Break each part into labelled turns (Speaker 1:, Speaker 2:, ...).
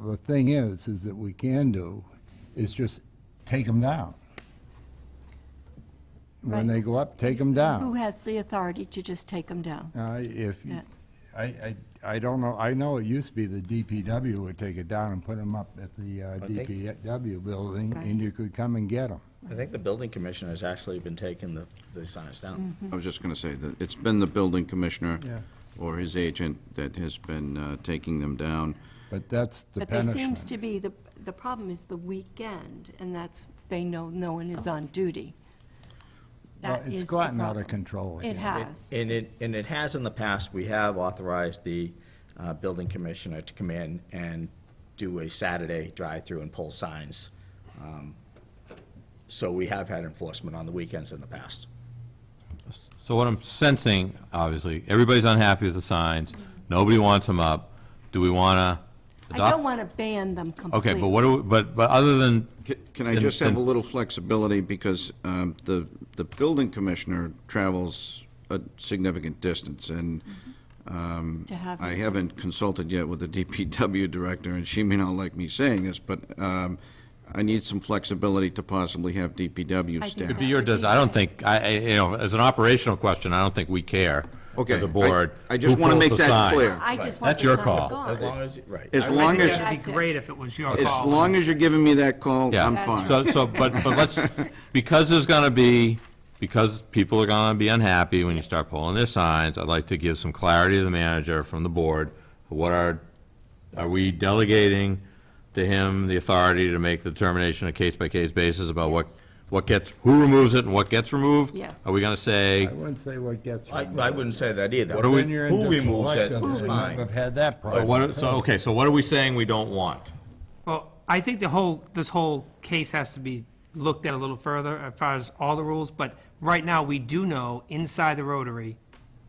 Speaker 1: the thing is, is that we can do is just take them down. When
Speaker 2: Right.
Speaker 1: they go up, take them
Speaker 2: Who
Speaker 1: down.
Speaker 2: has the authority to just take them down?
Speaker 1: Uh, If, you-
Speaker 2: Yeah.
Speaker 1: I, I, I don't know, I know it used to be the DPW would take it down and put them up at the uh,
Speaker 3: I think-
Speaker 1: DPW building,
Speaker 2: Right.
Speaker 1: and you could come and get them.
Speaker 3: I think the building commissioner has actually been taking the, the signs down.
Speaker 4: I was just going to say that it's been the building commissioner
Speaker 1: Yeah.
Speaker 4: or his agent that has been uh, taking them down.
Speaker 1: But that's the
Speaker 2: But there seems
Speaker 1: punishment.
Speaker 2: to be, the, the problem is the weekend, and that's, they know no one is on duty.
Speaker 1: Well,
Speaker 2: That is
Speaker 1: It's
Speaker 2: the
Speaker 1: gotten out
Speaker 2: problem.
Speaker 1: of control.
Speaker 2: It
Speaker 1: again.
Speaker 2: has.
Speaker 3: And it, and it has in the past, we have authorized the uh, building commissioner to come in and do a Saturday drive-through and pull signs. Um, So we have had enforcement on the weekends in the past.
Speaker 5: So what I'm sensing, obviously, everybody's unhappy with the signs, nobody wants them up. Do we want to
Speaker 2: I don't
Speaker 5: adopt?
Speaker 2: want to ban them completely.
Speaker 5: Okay, but what do, we- but, but other than,
Speaker 4: Ca- Can I
Speaker 5: Then-
Speaker 4: just have a
Speaker 5: then-
Speaker 4: little flexibility, because um, the, the building commissioner travels a significant distance, and um,
Speaker 2: To have
Speaker 4: I
Speaker 2: them.
Speaker 4: haven't consulted yet with the DPW director, and she may not like me saying this, but um, I need some flexibility to possibly have DPW
Speaker 2: I think
Speaker 4: staff.
Speaker 2: that-
Speaker 5: it'd be your, des- I don't think, I, I- you know, as an operational question, I don't think we care
Speaker 4: Okay,
Speaker 5: as
Speaker 4: I-
Speaker 5: a board.
Speaker 4: I just
Speaker 5: who
Speaker 4: wanna
Speaker 5: pulls
Speaker 4: make
Speaker 5: the
Speaker 4: that
Speaker 5: signs.
Speaker 4: clear.
Speaker 2: I just
Speaker 5: Right.
Speaker 2: want
Speaker 5: That's
Speaker 2: the
Speaker 5: your
Speaker 2: signs
Speaker 5: call.
Speaker 2: gone.
Speaker 3: As long as, right.
Speaker 4: As long as,
Speaker 2: Yeah.
Speaker 6: It'd
Speaker 2: That's it.
Speaker 6: be great if it was your
Speaker 4: as
Speaker 6: call.
Speaker 4: long as you're giving me that call,
Speaker 5: Yeah.
Speaker 4: I'm fine.
Speaker 5: So, so, but, but let's, because there's gonna be, because people are gonna be unhappy when you start pulling their signs, I'd like to give some clarity to the manager from the board. What are, are we delegating to him the authority to make the determination on a case-by-case basis about what, what gets, who removes it and what gets removed?
Speaker 2: Yes.
Speaker 5: Are we gonna say,
Speaker 1: I wouldn't say what gets.
Speaker 3: I,
Speaker 1: removed.
Speaker 3: I wouldn't say that either.
Speaker 5: What do we-
Speaker 1: Then you're
Speaker 3: Who
Speaker 1: into
Speaker 3: removes it
Speaker 1: selective,
Speaker 3: is
Speaker 1: and I've
Speaker 3: fine.
Speaker 1: had that
Speaker 5: so
Speaker 1: problem.
Speaker 5: uh, what, are- so, okay, so what are we saying we don't want?
Speaker 6: Well, I think the whole, this whole case has to be looked at a little further as far as all the rules, but right now, we do know inside the Rotary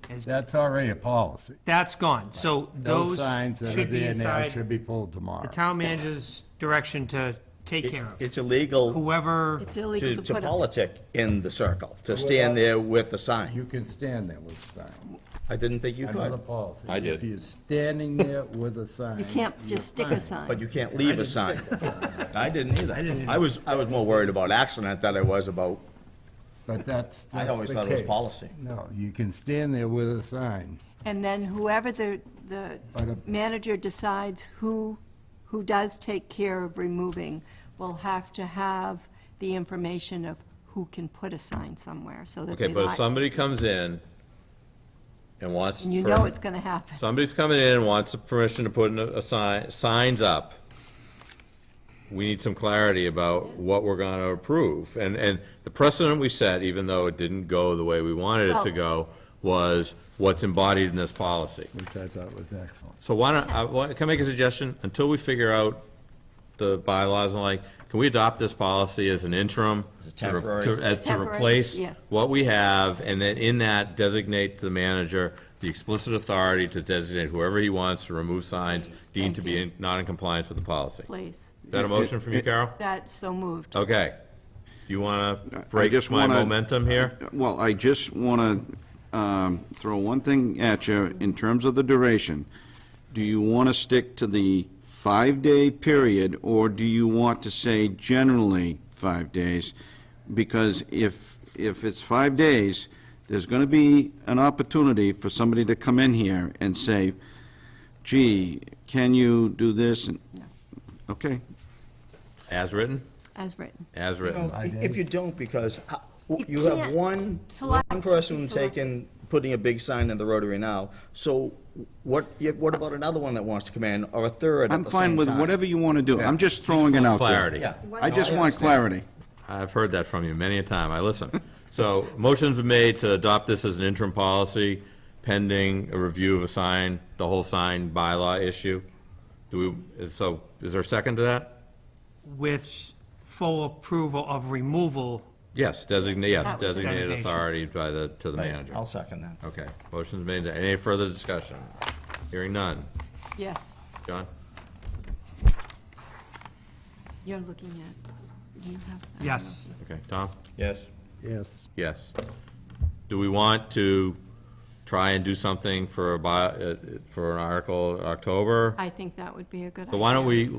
Speaker 6: is,
Speaker 1: That's already a policy.
Speaker 6: that's gone. So
Speaker 1: Those
Speaker 6: those
Speaker 1: signs that are
Speaker 6: should be
Speaker 1: there now
Speaker 6: inside
Speaker 1: should be pulled tomorrow.
Speaker 6: the town manager's direction to take care of.
Speaker 3: It's illegal
Speaker 6: Whoever,
Speaker 2: It's
Speaker 3: to,
Speaker 2: illegal to
Speaker 3: to
Speaker 2: put up.
Speaker 3: politic in the circle, to stand there with the sign.
Speaker 1: You can stand there with a sign.
Speaker 3: I didn't think you
Speaker 1: Another
Speaker 3: could,
Speaker 1: policy.
Speaker 5: I did.
Speaker 1: If you're standing there with a sign.
Speaker 2: You can't
Speaker 1: you're
Speaker 2: just stick
Speaker 1: fine.
Speaker 2: a sign.
Speaker 3: but you can't leave a sign. I didn't either.
Speaker 6: didn't
Speaker 3: I was, I was more worried about accident than I was about,
Speaker 1: But that's,
Speaker 3: I
Speaker 1: that's
Speaker 3: always
Speaker 1: the
Speaker 3: thought it was
Speaker 1: case.
Speaker 3: policy.
Speaker 1: No, you can stand there with a sign.
Speaker 2: And then whoever the, the
Speaker 1: But a-
Speaker 2: manager decides who, who does take care of removing will have to have the information of who can put a sign somewhere, so that
Speaker 5: Okay,
Speaker 2: they
Speaker 5: but if
Speaker 2: like.
Speaker 5: somebody comes in and wants.
Speaker 2: And you
Speaker 5: for-
Speaker 2: know it's gonna happen.
Speaker 5: Somebody's coming in and wants the permission to put in a a sign, signs up. We need some clarity about what we're gonna approve. And, and the precedent we set, even though it didn't go the way we wanted it
Speaker 2: Well-
Speaker 5: to go, was what's embodied in this policy.
Speaker 1: Which I thought was excellent.
Speaker 5: So why don't, I, why- can I make a suggestion? Until we figure out the bylaws and like, can we adopt this policy as an interim?
Speaker 3: As a
Speaker 5: to re-
Speaker 3: temporary-
Speaker 5: to- uh, To
Speaker 2: Temporary,
Speaker 5: replace
Speaker 2: yes.
Speaker 5: what we have, and then in that designate to the manager the explicit authority to designate whoever he wants to remove signs
Speaker 2: Please,
Speaker 5: deemed to
Speaker 2: thank
Speaker 5: be
Speaker 2: you.
Speaker 5: in- not in compliance with the policy. Is
Speaker 2: Please,
Speaker 5: that a motion from you, Carol?
Speaker 2: that's so moved.
Speaker 5: Okay. You want
Speaker 4: I
Speaker 5: to break
Speaker 4: just
Speaker 5: my
Speaker 4: wanna-
Speaker 5: momentum here?
Speaker 4: Well, I just want to throw one thing at you in terms of the duration. Do you want to stick to the five-day period, or do you want to say generally five days? Because if, if it's five days, there's going to be an opportunity for somebody to come in here and say, gee, can you do this? And- Okay,
Speaker 5: As written?
Speaker 2: As written.
Speaker 5: As written.
Speaker 3: If you don't, because uh, w-
Speaker 2: You
Speaker 3: you have
Speaker 2: can't
Speaker 3: one, one
Speaker 2: select, you
Speaker 3: person
Speaker 2: select.
Speaker 3: taking, putting a big sign in the Rotary now, so what, yeah, what about another one that wants to come in, or a third at
Speaker 4: I'm
Speaker 3: the same time?
Speaker 4: fine with whatever you want to do. I'm just throwing it out there.
Speaker 5: Clarity.
Speaker 3: Yeah.
Speaker 4: I just want clarity.
Speaker 5: I've heard that from you many a time, I listen. So, motion's been made to adopt this as an interim policy pending a review of a sign, the whole sign bylaw issue. Do we, is- so, is there a second to that?
Speaker 6: with full approval of removal,
Speaker 5: Yes, designate, yes,
Speaker 2: That was-
Speaker 5: designated
Speaker 6: Designation.
Speaker 5: authority by the, to the
Speaker 3: Right,
Speaker 5: manager.
Speaker 3: I'll second that.
Speaker 5: Okay, motion's made, any further discussion? Hearing none.
Speaker 2: Yes,
Speaker 5: John?
Speaker 2: you're looking at, you have that.
Speaker 6: yes.
Speaker 5: Okay, Tom?
Speaker 3: Yes.
Speaker 1: Yes.
Speaker 5: Yes. Do we want to try and do something for a, bi- uh, for an article in October?
Speaker 2: I think that would be a good idea.
Speaker 5: So why don't we,